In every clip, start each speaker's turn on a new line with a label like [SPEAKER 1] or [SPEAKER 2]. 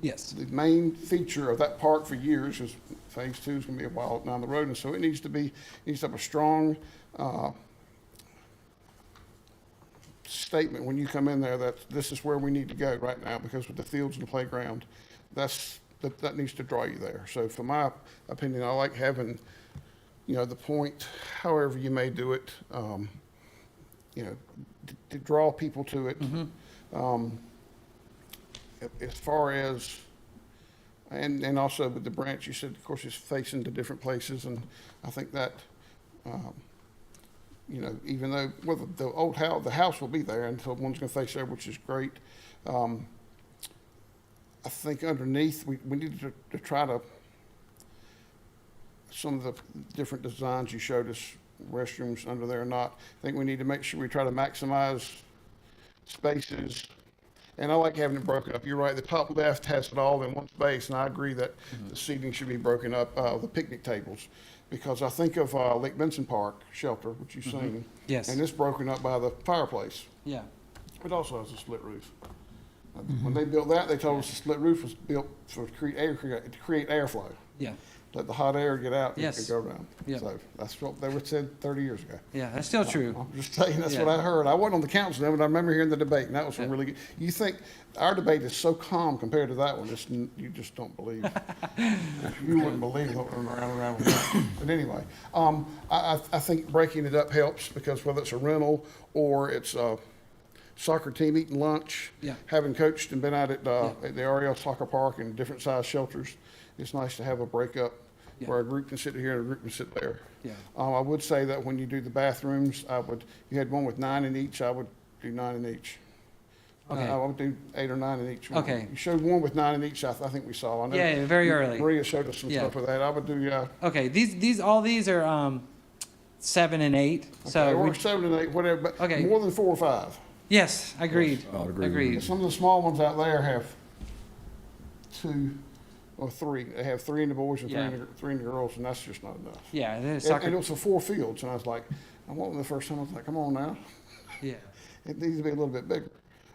[SPEAKER 1] Yes.
[SPEAKER 2] the main feature of that park for years is phase two is going to be a while down the road, and so it needs to be, needs to have a strong uh, statement when you come in there that this is where we need to go right now, because with the fields and the playground, that's, that, that needs to draw you there. So for my opinion, I like having, you know, the point, however you may do it, um, you know, to- to draw people to
[SPEAKER 1] Mm-hmm.
[SPEAKER 2] it. Um, a- As far as, and, and also with the branch, you said, of course, it's facing to different places, and I think that, um, you know, even though, well, the- the old house, the house will be there, and so one's gonna face there, which is great. Um, I think underneath, we, we need to, to try to, some of the different designs you showed us, restrooms under there or not, I think we need to make sure we try to maximize spaces. And I like having it broken up. You're right, the top left has it all in one space, and I agree that the seating should be broken up, uh, the picnic tables. Because I think of, uh, Lake Benson Park shelter, which you've seen.
[SPEAKER 1] Yes.
[SPEAKER 2] And it's broken up by the fireplace.
[SPEAKER 1] Yeah.
[SPEAKER 2] It also has a split roof. Uh,
[SPEAKER 1] Mm-hmm.
[SPEAKER 2] When they built that, they told us the split roof was built for create air, to create airflow.
[SPEAKER 1] Yeah.
[SPEAKER 2] Let the hot air get out and
[SPEAKER 1] Yes.
[SPEAKER 2] go around.
[SPEAKER 1] Yeah.
[SPEAKER 2] So that's what they were said thirty years ago.
[SPEAKER 1] Yeah. That's still true.
[SPEAKER 2] I'm just saying, that's what
[SPEAKER 1] Yeah.
[SPEAKER 2] I heard. I wasn't on the council then, but I remember hearing the debate, and that was some
[SPEAKER 1] Yeah.
[SPEAKER 2] really good. You think, our debate is so calm compared to that one, it's, n- you just don't believe. You wouldn't believe what went around and around with that. But anyway, um, I, I, I think breaking it up helps, because whether it's a rental or it's a soccer team eating lunch.
[SPEAKER 1] Yeah.
[SPEAKER 2] Having coached and been out at, uh,
[SPEAKER 1] Yeah.
[SPEAKER 2] at the Ariel Soccer Park and different size shelters, it's nice to have a breakup
[SPEAKER 1] Yeah.
[SPEAKER 2] where a group can sit here and a group can sit there.
[SPEAKER 1] Yeah.
[SPEAKER 2] Um, I would say that when you do the bathrooms, I would, you had one with nine in each, I would do nine in each. I-
[SPEAKER 1] Okay.
[SPEAKER 2] I would do eight or nine in each one.
[SPEAKER 1] Okay.
[SPEAKER 2] You showed one with nine in each, I, th- I think we saw. I know
[SPEAKER 1] Yeah, very early.
[SPEAKER 2] Maria showed us some
[SPEAKER 1] Yeah.
[SPEAKER 2] stuff with that. I would do, yeah.
[SPEAKER 1] Okay. These these all these are um, seven and eight.
[SPEAKER 2] okay,
[SPEAKER 1] So we,
[SPEAKER 2] Or seven and eight, whatever, but
[SPEAKER 1] Okay.
[SPEAKER 2] more than four or five.
[SPEAKER 1] yes, agreed.
[SPEAKER 3] I'll agree with
[SPEAKER 1] Agreed.
[SPEAKER 2] Some of the small ones out there have two or three. They have three in the boys and three in
[SPEAKER 1] Yeah.
[SPEAKER 2] the, three in the girls, and that's just not enough.
[SPEAKER 1] Yeah. The
[SPEAKER 2] And- And it
[SPEAKER 1] soccer.
[SPEAKER 2] was for four fields, and I was like, I went the first time, I was like, come on now.
[SPEAKER 1] Yeah.
[SPEAKER 2] It needs to be a little bit bigger.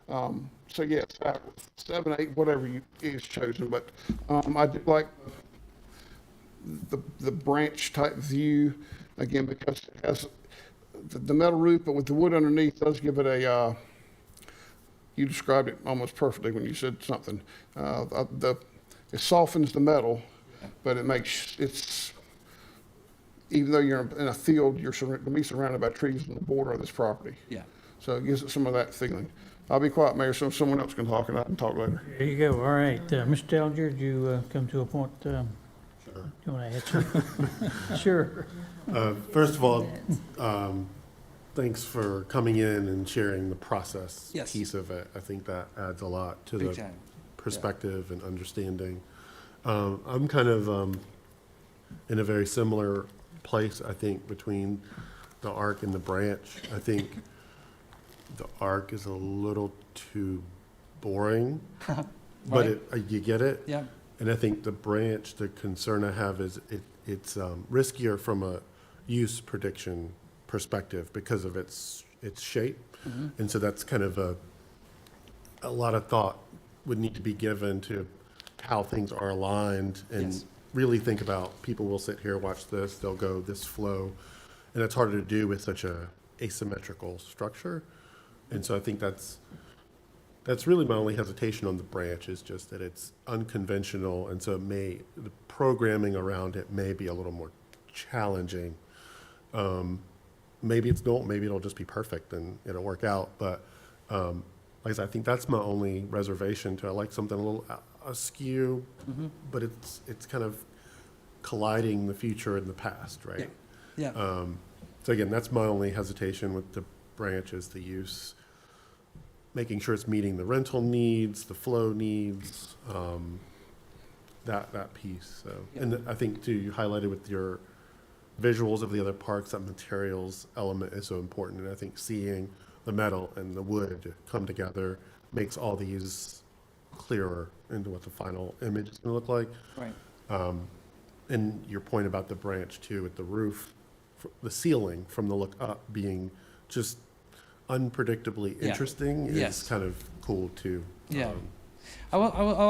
[SPEAKER 2] Um, so yes, uh, seven, eight, whatever you, is chosen, but, um, I do like the, the branch type view, again, because it has the, the metal roof, but with the wood underneath does give it a, uh, you described it almost perfectly when you said something. Uh, uh, the, it softens the metal, but it makes, it's, even though you're in a field, you're surrounded, gonna be surrounded by trees on the border of this property.
[SPEAKER 1] Yeah.
[SPEAKER 2] So it gives it some of that feeling. I'll be quiet, Mayor, so someone else can talk and I can talk later.
[SPEAKER 4] There you go, all right. Uh, Mr. Dellinger, did you uh, come to a point? um, Do you want to add something? Sure.
[SPEAKER 5] Uh, First of all, um, thanks for coming in and sharing the process
[SPEAKER 1] Yes.
[SPEAKER 5] piece of it. I think that adds a lot to
[SPEAKER 1] Big
[SPEAKER 5] the
[SPEAKER 1] time.
[SPEAKER 5] perspective and understanding. Um, I'm kind of um, in a very similar place, I think, between the arc and the branch. I think the arc is a little too boring, but
[SPEAKER 1] Right.
[SPEAKER 5] it, uh, you get it.
[SPEAKER 1] Yeah.
[SPEAKER 5] And I think the branch, the concern I have is it, it's um, riskier from a use prediction perspective because of its, its shape. And so that's kind of a, a lot of thought would need to be given to how things are aligned
[SPEAKER 1] Yes.
[SPEAKER 5] and really think about, people will sit here, watch this, they'll go this flow. And it's harder to do with such a asymmetrical structure. And so I think that's, that's really my only hesitation on the branch is just that it's unconventional, and so it may, the programming around it may be a little more challenging. Um, Maybe it's not, maybe it'll just be perfect and it'll work out, but, um, like I said, I think that's my only reservation to, I like something a little a- askew,
[SPEAKER 1] mm-hmm.
[SPEAKER 5] but it's, it's kind of colliding the future and the past, right?
[SPEAKER 1] Yeah.
[SPEAKER 3] Uh,
[SPEAKER 5] Um, So again, that's my only hesitation with the branch is the use, making sure it's meeting the rental needs, the flow needs, um, that, that piece, so. And I think too, you highlighted with your visuals of the other parks, that materials element is so important. And I think seeing the metal and the wood come together makes all these clearer into what the final image is gonna look like. Um,
[SPEAKER 1] right.
[SPEAKER 5] And your point about the branch too, with the roof, f- the ceiling from the look up being just unpredictably
[SPEAKER 1] Yeah.
[SPEAKER 5] interesting is
[SPEAKER 1] Yes.
[SPEAKER 5] kind of cool too.
[SPEAKER 3] uh,
[SPEAKER 1] Yeah.
[SPEAKER 5] Um,
[SPEAKER 1] I will. I will.